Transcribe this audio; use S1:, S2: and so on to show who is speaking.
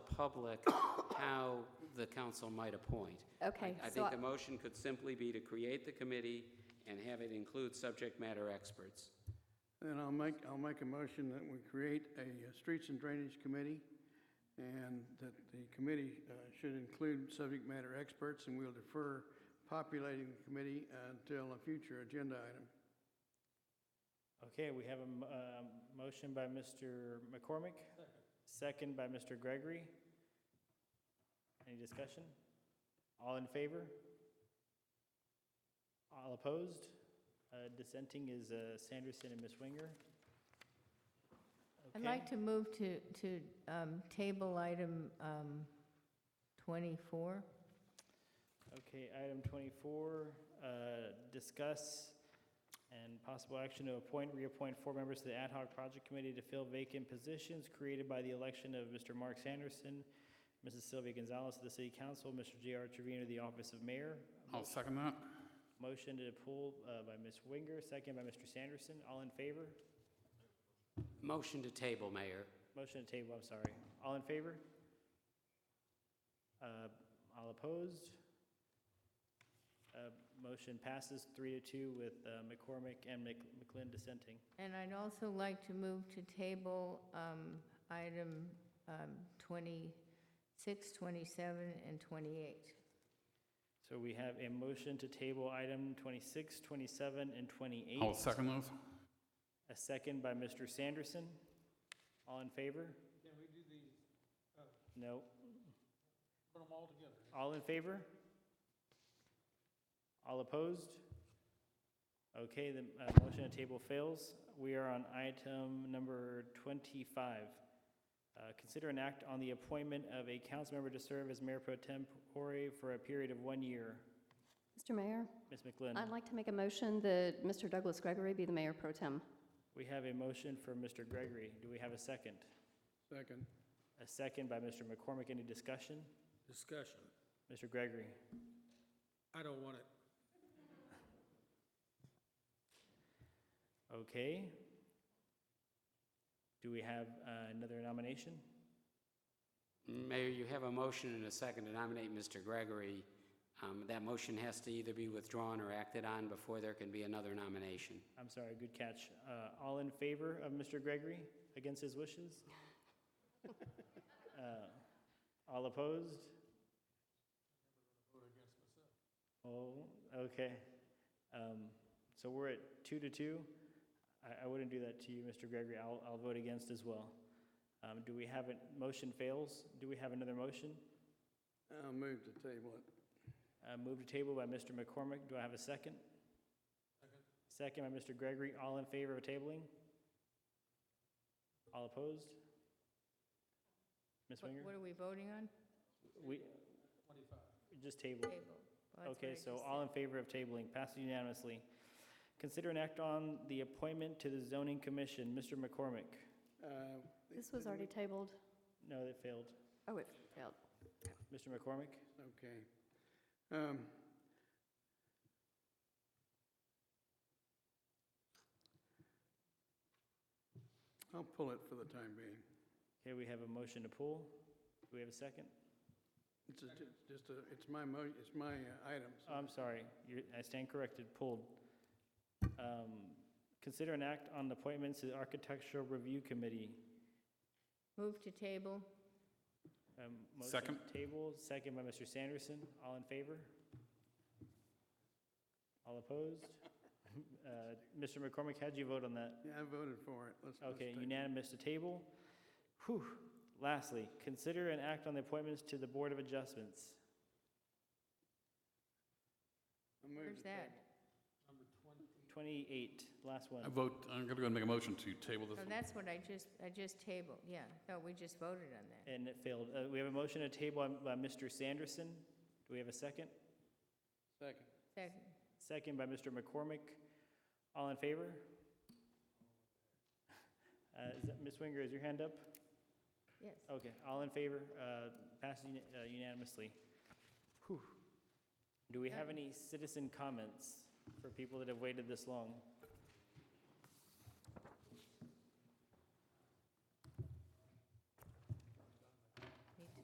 S1: public how the council might appoint.
S2: Okay,
S1: I- I
S2: so
S1: think
S2: I-
S1: the motion could simply be to create the committee and have it include subject matter experts.
S3: Then I'll make, I'll make a motion that we create a uh, Streets and Drainage Committee, and that the committee uh, should include subject matter experts, and we'll defer populating the committee uh, until a future agenda item.
S4: Okay, we have a m- um, motion by Mr. McCormick, second by Mr. Gregory. Any discussion? All in favor? All opposed? Uh, Dissenting is uh, Sanderson and Ms. Winger.
S2: I'd
S4: Okay.
S2: like to move to, to um, table item um, 24.
S4: Okay, item 24, uh, discuss and possible action to appoint, reappoint four members to the Ad hoc Project Committee to fill vacant positions created by the election of Mr. Mark Sanderson, Mrs. Sylvia Gonzalez to the City Council, Mr. J.R. Trevino to the Office of Mayor.
S5: I'll second that.
S4: Motion to pull uh, by Ms. Winger, second by Mr. Sanderson. All in favor?
S1: Motion to table, Mayor.
S4: Motion to table, I'm sorry. All in favor? Uh, All opposed? Uh, Motion passes three to two with uh, McCormick and Mc- McLean dissenting.
S2: And I'd also like to move to table um, item um, 26, 27, and 28.
S4: So we have a motion to table item 26, 27, and 28.
S5: I'll second those.
S4: A second by Mr. Sanderson. All in favor? Can we do the? No. Oh. Put them all together. All in favor? All opposed? Okay, the uh, motion to table fails. We are on item number 25. Uh, Consider an act on the appointment of a council member to serve as mayor pro tempore for a period of one year.
S6: Mr. Mayor,
S4: Ms. McLean?
S6: I'd like to make a motion that Mr. Douglas Gregory be the mayor pro tem.
S4: We have a motion for Mr. Gregory. Do we have a second?
S3: Second.
S4: A second by Mr. McCormick. Any discussion?
S7: Discussion.
S4: Mr. Gregory?
S7: I don't want it.
S4: Okay. Do we have uh, another nomination?
S1: Mayor, you have a motion and a second to nominate Mr. Gregory. Um, That motion has to either be withdrawn or acted on before there can be another nomination.
S4: I'm sorry, good catch. Uh, All in favor of Mr. Gregory against his wishes? Uh, All opposed? Oh, okay. Um, So we're at two to two. I, I wouldn't do that to you, Mr. Gregory. I'll, I'll vote against as well. Um, Do we have, a motion fails? Do we have another motion?
S3: I'll move to table it.
S4: Uh, Moved to table by Mr. McCormick. Do I have a second? Second by Mr. Gregory. All in favor of tabling? All opposed? Ms.
S2: What
S4: Winger?
S2: what are we voting on?
S4: We, just table.
S2: Table. Well, that's
S4: Okay,
S2: what I
S4: so
S2: just
S4: all
S2: said.
S4: in favor of tabling, passed unanimously. Consider an act on the appointment to the zoning commission. Mr. McCormick?
S3: Uh,
S6: This was already tabled.
S4: No, that failed.
S6: Oh, it failed.
S4: Mr. McCormick?
S3: Okay. Um, I'll pull it for the time being.
S4: Okay, we have a motion to pull. Do we have a second?
S3: It's a- it's just a, it's my mo, it's my uh, item. so-
S4: I'm sorry, you're, I stand corrected, pulled. Um, Consider an act on appointments to the Architectural Review Committee.
S2: Move to table.
S4: Um, motion
S5: Second.
S4: Table, second by Mr. Sanderson, all in favor? All opposed? Uh, Mr. McCormick, how'd you vote on that?
S3: Yeah, I voted for it. Let's, let's
S4: Okay,
S3: table it.
S4: unanimous to table. Whew, lastly, consider an act on the appointments to the Board of Adjustments.
S3: I'll move
S2: Where's
S3: to
S2: that?
S3: table.
S4: Twenty-eight, last one.
S5: I vote, I'm gonna go and make a motion to table this
S2: Oh,
S5: one.
S2: that's what I just, I just tabled, yeah. No, we just voted on that.
S4: And it failed. Uh, We have a motion to table by Mr. Sanderson. Do we have a second?
S3: Second.
S2: Second.
S4: Second by Mr. McCormick. All in favor? Uh, is that- Ms. Winger, is your hand up?
S2: Yes.
S4: Okay, all in favor, uh, passed uni- uh, unanimously. Whew. Do we have any citizen comments for people that have waited this long?